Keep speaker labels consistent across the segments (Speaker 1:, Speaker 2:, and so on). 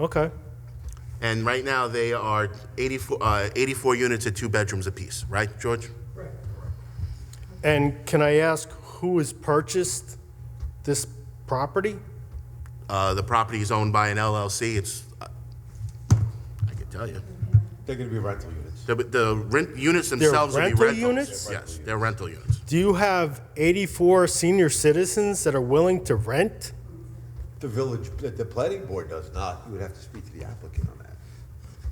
Speaker 1: Okay.
Speaker 2: And right now, they are 84, uh, 84 units at two bedrooms apiece, right, George?
Speaker 1: And can I ask who has purchased this property?
Speaker 2: Uh, The property is owned by an LLC, it's, uh, I can tell you.
Speaker 3: They're gonna be rental units.
Speaker 2: The- The rent, units themselves will be
Speaker 1: rental units?
Speaker 2: rentals. Yes, they're rental units.
Speaker 1: Do you have 84 senior citizens that are willing to rent?
Speaker 3: The village, the- the planning board does not, you would have to speak to the applicant on that.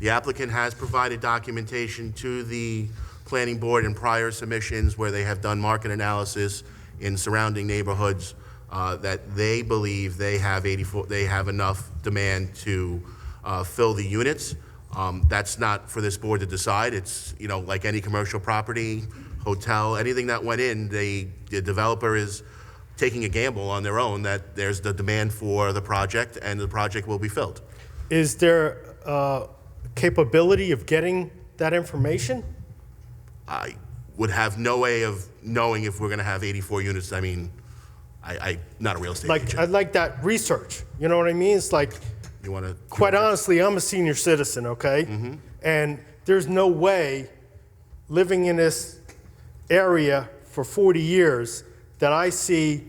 Speaker 2: The applicant has provided documentation to the planning board in prior submissions where they have done market analysis in surrounding neighborhoods uh, that they believe they have 84, they have enough demand to uh, fill the units. Um, That's not for this board to decide. It's, you know, like any commercial property, hotel, anything that went in, they, the developer is taking a gamble on their own that there's the demand for the project and the project will be filled.
Speaker 1: Is there uh, capability of getting that information?
Speaker 2: I would have no way of knowing if we're going to have 84 units. I mean, I, I, not a real estate
Speaker 1: Like,
Speaker 2: agent.
Speaker 1: I'd like that research, you know what I mean? It's like,
Speaker 2: You want to?
Speaker 1: quite honestly, I'm a senior citizen, okay? And there's no way, living in this area for 40 years, that I see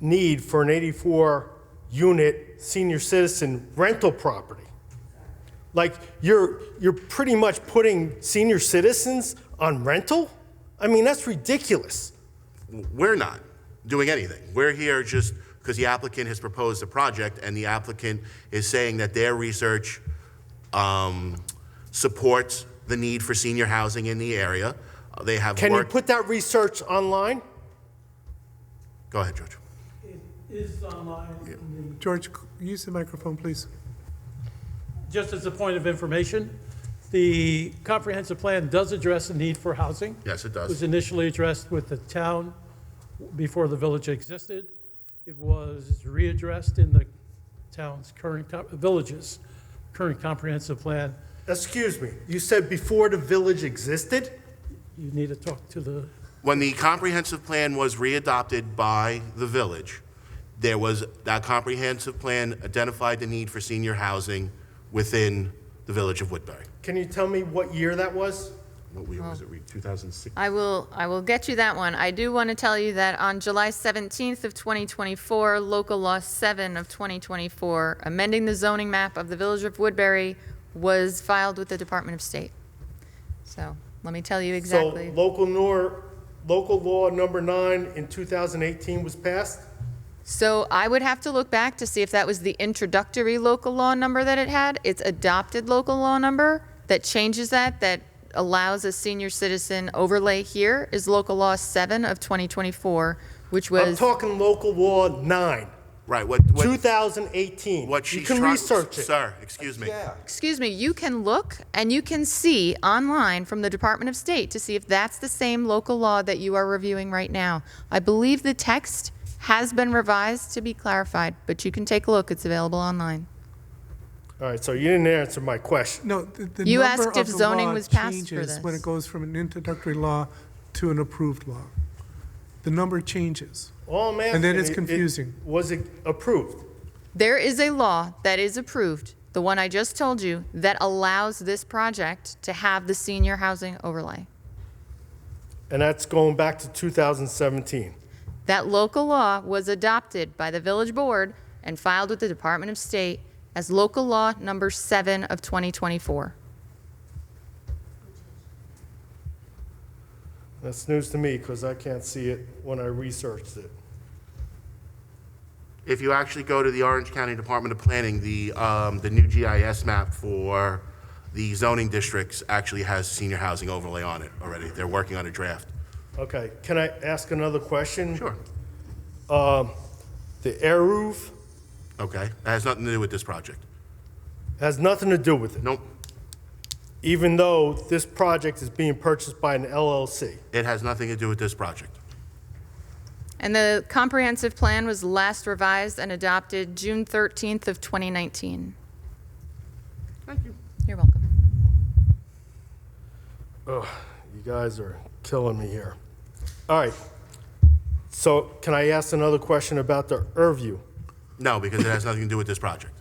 Speaker 1: need for an 84-unit senior citizen rental property. Like, you're, you're pretty much putting senior citizens on rental? I mean, that's ridiculous.
Speaker 2: We're not doing anything. We're here just because the applicant has proposed a project and the applicant is saying that their research um, supports the need for senior housing in the area. Uh, They have
Speaker 1: Can you
Speaker 2: worked.
Speaker 1: put that research online?
Speaker 2: Go ahead, George.
Speaker 4: It is online. in
Speaker 5: George, use the microphone, please.
Speaker 4: the- Just as a point of information, the comprehensive plan does address the need for housing.
Speaker 2: Yes, it
Speaker 4: It was
Speaker 2: does.
Speaker 4: initially addressed with the town before the village existed. It was readdressed in the town's current, co- village's current comprehensive plan.
Speaker 1: Excuse me, you said before the village existed?
Speaker 4: You need to talk to the,
Speaker 2: When the comprehensive plan was readopted by the village, there was, that comprehensive plan identified the need for senior housing within the village of Woodbury.
Speaker 1: Can you tell me what year that was?
Speaker 2: What we, was it, re- 2006?
Speaker 6: I will, I will get you that one. I do want to tell you that on July 17th of 2024, Local Law 7 of 2024, amending the zoning map of the Village of Woodbury was filed with the Department of State. So let me tell you exactly.
Speaker 1: So local nor, local law number nine in 2018 was passed?
Speaker 6: So I would have to look back to see if that was the introductory local law number that it had. It's adopted local law number that changes that, that allows a senior citizen overlay here is Local Law 7 of 2024, which
Speaker 1: I'm
Speaker 6: was.
Speaker 1: talking local law nine,
Speaker 2: Right, what, what,
Speaker 1: 2018.
Speaker 2: what she's
Speaker 1: You can
Speaker 2: trying-
Speaker 1: research it.
Speaker 2: Sir, excuse me.
Speaker 3: Yeah,
Speaker 6: Excuse me, you can look and you can see online from the Department of State to see if that's the same local law that you are reviewing right now. I believe the text has been revised to be clarified, but you can take a look. It's available online.
Speaker 1: All right, so you didn't answer my question.
Speaker 5: No, the the
Speaker 6: You
Speaker 5: number
Speaker 6: asked
Speaker 5: of
Speaker 6: if
Speaker 5: the
Speaker 6: zoning
Speaker 5: law
Speaker 6: was passed for
Speaker 5: changes When
Speaker 6: this.
Speaker 5: it goes from an introductory law to an approved law. The number changes.
Speaker 1: All I'm asking.
Speaker 5: And then it's
Speaker 1: i- i-
Speaker 5: confusing.
Speaker 1: Was it approved?
Speaker 6: There is a law that is approved, the one I just told you, that allows this project to have the senior housing overlay.
Speaker 1: And that's going back to 2017.
Speaker 6: That local law was adopted by the village board and filed with the Department of State as local law number 7 of 2024.
Speaker 1: That's news to me because I can't see it when I researched it.
Speaker 2: If you actually go to the Orange County Department of Planning, the, um, the new GIS map for the zoning districts actually has senior housing overlay on it already. They're working on a draft.
Speaker 1: Okay, can I ask another question?
Speaker 2: Sure,
Speaker 1: Um, The air roof
Speaker 2: okay, that has nothing to do with this project.
Speaker 1: has nothing to do with it,
Speaker 2: Nope,
Speaker 1: even though this project is being purchased by an LLC.
Speaker 2: it has nothing to do with this project.
Speaker 6: And the comprehensive plan was last revised and adopted June 13th of 2019. Thank you. You're welcome.
Speaker 1: You guys are killing me here. All right. So can I ask another question about the Irview?
Speaker 2: No, because it has nothing to do with this project.